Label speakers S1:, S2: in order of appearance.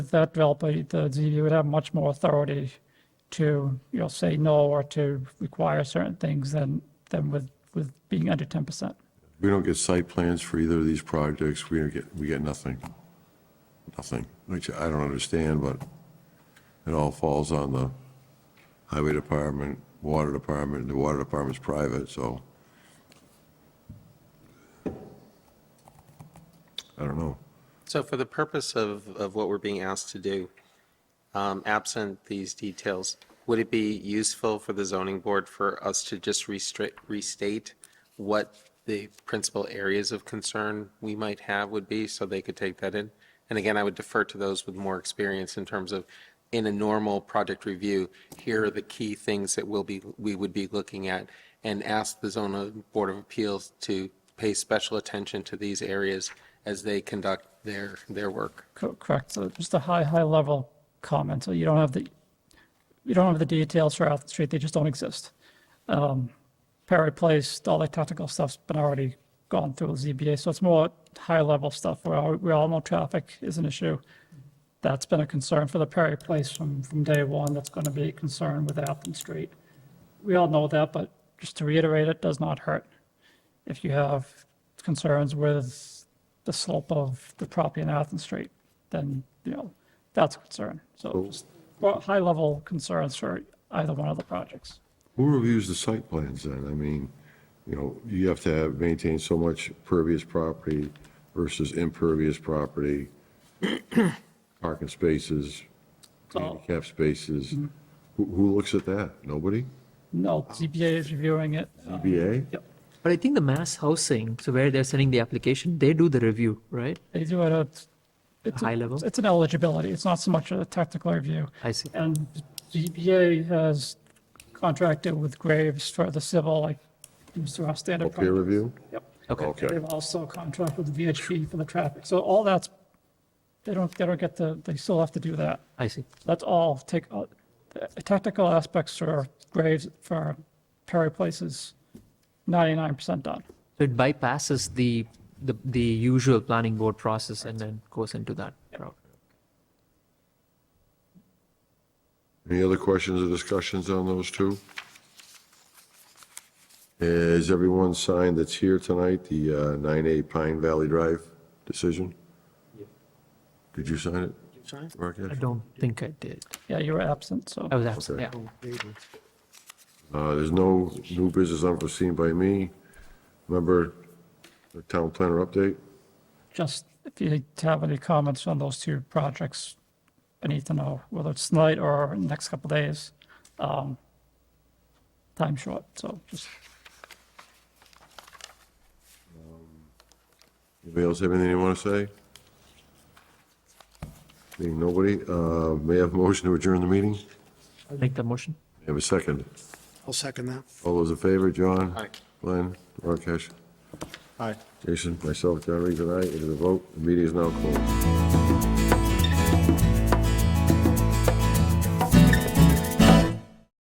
S1: If that developer, the ZBA would have much more authority to, you know, say no or to require certain things than, than with, with being under 10%.
S2: We don't get site plans for either of these projects. We don't get, we get nothing. Nothing, which I don't understand, but it all falls on the highway department, water department, the water department's private, so. I don't know.
S3: So for the purpose of, of what we're being asked to do, um, absent these details, would it be useful for the zoning board for us to just restrict, restate what the principal areas of concern we might have would be, so they could take that in? And again, I would defer to those with more experience in terms of, in a normal project review, here are the key things that we'll be, we would be looking at, and ask the zoning board of appeals to pay special attention to these areas as they conduct their, their work.
S1: Co- Correct, so just a high, high level comment, so you don't have the, you don't have the details for Athens Street, they just don't exist. Um, Perry Place, all that technical stuff's been already gone through with ZBA, so it's more high level stuff where all- we all know traffic is an issue. That's been a concern for the Perry Place from, from day one, that's going to be a concern with Athens Street. We all know that, but just to reiterate, it does not hurt if you have concerns with the slope of the property in Athens Street, then, you know, that's a concern. So just well, high-level concerns for either one of the projects.
S2: Who reviews the site plans then? I mean, you know, you have to have, maintain so much pervious property versus impervious property, parking spaces, handicap spaces. Who, who looks at that? Nobody?
S1: No, ZBA is reviewing it.
S2: ZBA?
S1: Yep,
S4: But I think the mass housing, so where they're sending the application, they do the review, right?
S1: they do it at. it's a-
S4: High level?
S1: It's an eligibility, it's not so much a technical review.
S4: I see.
S1: And ZBA has contracted with Graves for the civil, like, Mr. our
S2: Oh,
S1: standard.
S2: Peer
S1: project.
S2: review?
S1: Yep.
S4: Okay.
S2: Okay.
S1: They've also contracted with VHP for the traffic, so all that's, they don't, they don't get the, they still have to do that.
S4: I see.
S1: That's all, take, all- the technical aspects for Graves, for Perry Place is 99% done.
S4: So it bypasses the, the, the usual planning board process and then goes into that route.
S2: Any other questions or discussions on those two? Is everyone signed that's here tonight, the uh, 9A Pine Valley Drive decision? Did you sign it? Mark?
S4: I don't think I did.
S1: Yeah, you were absent, so.
S4: I was absent,
S2: Okay.
S4: yeah.
S2: Uh, There's no new business unforeseen by me. Remember the town planner update?
S1: Just if you have any comments on those two projects, I need to know whether it's tonight or in the next couple of days. Um, Time short, so just,
S2: Anybody else have anything you want to say? Being nobody, uh, may I have a motion to adjourn the meeting?
S4: Make the motion.
S2: May I Have a second.
S5: I'll second that.
S2: All those in favor, John?
S3: Aye.
S2: Glenn, Rakesh,
S5: Aye.
S2: Jason, myself, John Reed, and I, it is a vote. The meeting is now closed.